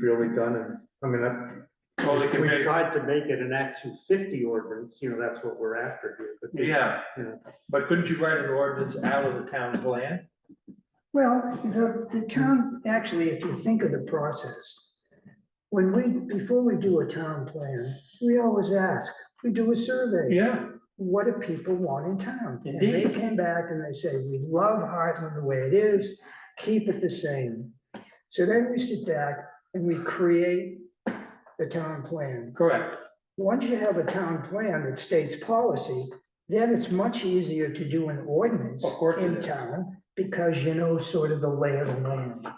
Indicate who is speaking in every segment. Speaker 1: really done and, I mean, I.
Speaker 2: Well, they can
Speaker 1: We
Speaker 2: make-
Speaker 1: tried to make it an Act two fifty ordinance, you know, that's what we're after here, but. they-
Speaker 2: Yeah,
Speaker 1: Yeah.
Speaker 2: but couldn't you write an ordinance out of the town plan?
Speaker 3: Well, the, the town, actually, if you think of the process, when we, before we do a town plan, we always ask, we do a survey.
Speaker 2: Yeah.
Speaker 3: What do people want in town? And they
Speaker 2: Indeed.
Speaker 3: came back and they say, we love Heartland the way it is, keep it the same. So then we sit back and we create the town plan.
Speaker 2: Correct.
Speaker 3: Once you have a town plan that states policy, then it's much easier to do an ordinance
Speaker 2: Of course it
Speaker 3: in
Speaker 2: is.
Speaker 3: town because you know sort of the lay of the land.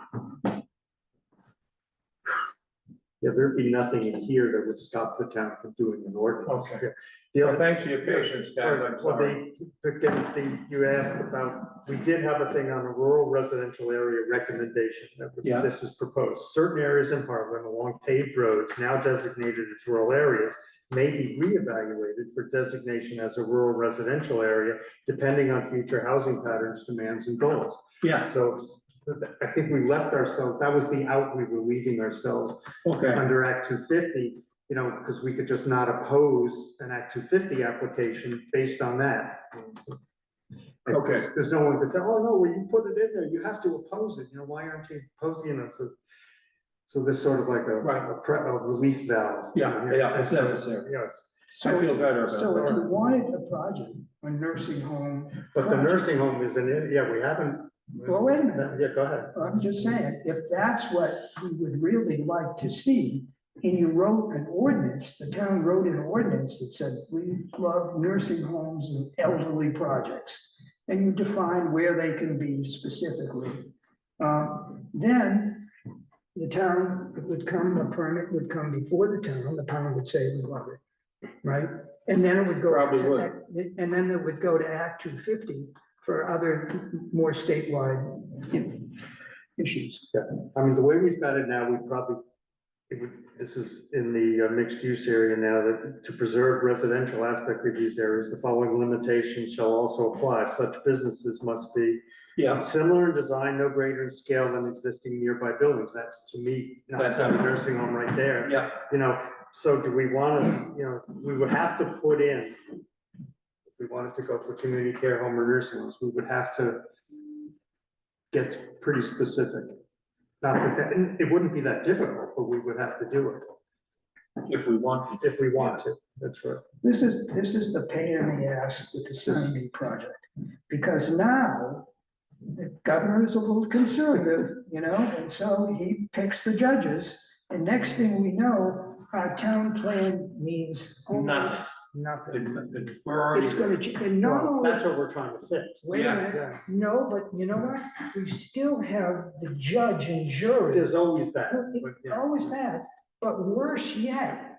Speaker 1: Yeah, there'd be nothing in here that would stop the town from doing an ordinance.
Speaker 2: Okay.
Speaker 1: Yeah. The
Speaker 2: Well,
Speaker 1: other,
Speaker 2: thanks for your patience, guys, I'm
Speaker 1: well,
Speaker 2: sorry.
Speaker 1: they, but then the- you asked about, we did have a thing on a rural residential area recommendation that was-
Speaker 2: Yeah.
Speaker 1: this is proposed. Certain areas in Heartland along paved roads now designated as rural areas may be reevaluated for designation as a rural residential area, depending on future housing patterns, demands, and goals.
Speaker 2: Yeah,
Speaker 1: So, so that- I think we left ourselves, that was the out we were leaving ourselves
Speaker 2: okay,
Speaker 1: under Act two fifty, you know, because we could just not oppose an Act two fifty application based on that. Like,
Speaker 2: Okay.
Speaker 1: there's- There's no one that said, oh, no, well, you put it in there, you have to oppose it, you know, why aren't you opposing it? So, so this sort of like a,
Speaker 2: Right.
Speaker 1: a pre- a relief valve.
Speaker 2: Yeah, yeah, it's
Speaker 1: And so-
Speaker 2: necessary.
Speaker 1: Yes,
Speaker 2: I feel
Speaker 3: So,
Speaker 2: better
Speaker 3: so
Speaker 2: about
Speaker 3: if you
Speaker 2: that.
Speaker 3: wanted a project, a nursing home,
Speaker 1: but the nursing home is in it, yeah, we haven't.
Speaker 3: Well, wait a minute.
Speaker 1: Yeah, go ahead.
Speaker 3: I'm just saying, if that's what we would really like to see, and you wrote an ordinance, the town wrote an ordinance that said, we love nursing homes and elderly projects, and you define where they can be specifically, um, then the town would come, the permit would come before the town, the town would say, we love it, right? And then it would go.
Speaker 2: Probably
Speaker 3: to
Speaker 2: would.
Speaker 3: Act- And then it would go to Act two fifty for other more statewide you know, issues.
Speaker 1: I mean, the way we've got it now, we probably, it would, this is in the uh, mixed use area now, that to preserve residential aspect of these areas, the following limitations shall also apply. Such businesses must be
Speaker 2: Yeah,
Speaker 1: similar in design, no greater in scale than existing nearby buildings. That, to me, that's
Speaker 2: That's-
Speaker 1: a nursing home right there,
Speaker 2: yeah,
Speaker 1: you know? So do we want to, you know, we would have to put in, if we wanted to go for community care home or nursing homes, we would have to get pretty specific. Not that, that- and it wouldn't be that difficult, but we would have to do it
Speaker 2: if we want.
Speaker 1: if we want to. That's right.
Speaker 3: This is, this is the pain in the ass with the Sunbeam project, because now the governor is a little conservative, you know, and so he picks the judges. And next thing we know, our town plan means almost nothing.
Speaker 2: it- it- We're already,
Speaker 3: Oh. It's gonna, ch- and not
Speaker 1: Well,
Speaker 3: only,
Speaker 1: That's what we're trying to fix.
Speaker 3: wait a
Speaker 2: yeah.
Speaker 3: minute,
Speaker 1: Yeah.
Speaker 3: no, but you know what? We still have the judge and jury.
Speaker 1: There's always that. but, yeah.
Speaker 3: Always that, but worse yet,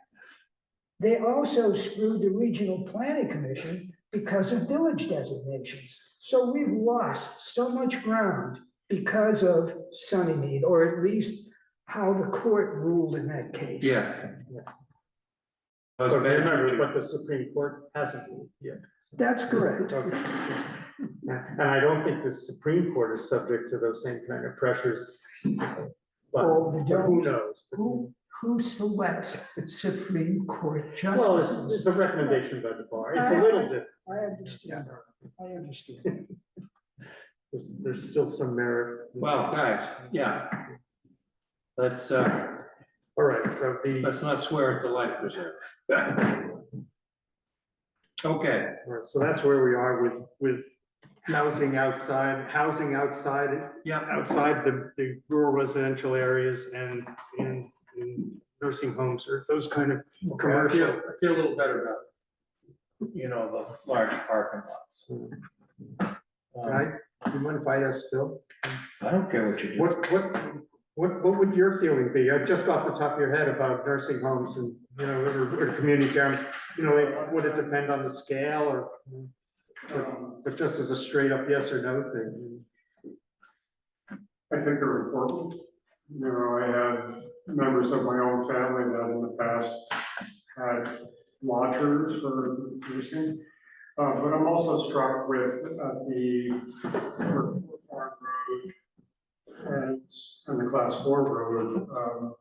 Speaker 3: they also screwed the regional planning commission because of village designations. So we've lost so much ground because of Sunnymead, or at least how the court ruled in that case.
Speaker 2: yeah. That's
Speaker 1: But remember,
Speaker 2: better.
Speaker 1: but the Supreme Court hasn't ruled yet.
Speaker 3: That's correct.
Speaker 1: Okay. And I don't think the Supreme Court is subject to those same kind of pressures. But
Speaker 3: Oh, we
Speaker 1: but who
Speaker 3: don't.
Speaker 1: knows?
Speaker 3: Who, who selects Supreme Court
Speaker 1: Well, it's,
Speaker 3: justices?
Speaker 1: it's a recommendation by the bar. It's a little different.
Speaker 3: I understand, I understand.
Speaker 1: There's, there's still some merit.
Speaker 2: Well, guys, yeah. Let's, uh,
Speaker 1: All right, so the,
Speaker 2: let's not swear at the life preserve. Okay,
Speaker 1: all right, so that's where we are with, with housing outside, housing outside,
Speaker 2: yeah,
Speaker 1: outside the, the rural residential areas and, and and nursing homes or those kind of
Speaker 2: commercial,
Speaker 1: commercial.
Speaker 2: I feel a little better about, it. you know, the large parking lots. Um,
Speaker 1: Right? Do you mind if I ask Phil?
Speaker 2: I don't care what you do.
Speaker 1: What, what, what, what would your feeling be, uh, just off the top of your head about nursing homes and, you know, or, or community care homes? You know, would it depend on the scale or,
Speaker 4: Um,
Speaker 1: or- but just as a straight up yes or no thing?
Speaker 4: I think are important. You know, I have members of my own family that in the past had lodgers for nursing. Uh, but I'm also struck with uh, the Farm Road and, and the Class Four Road, um,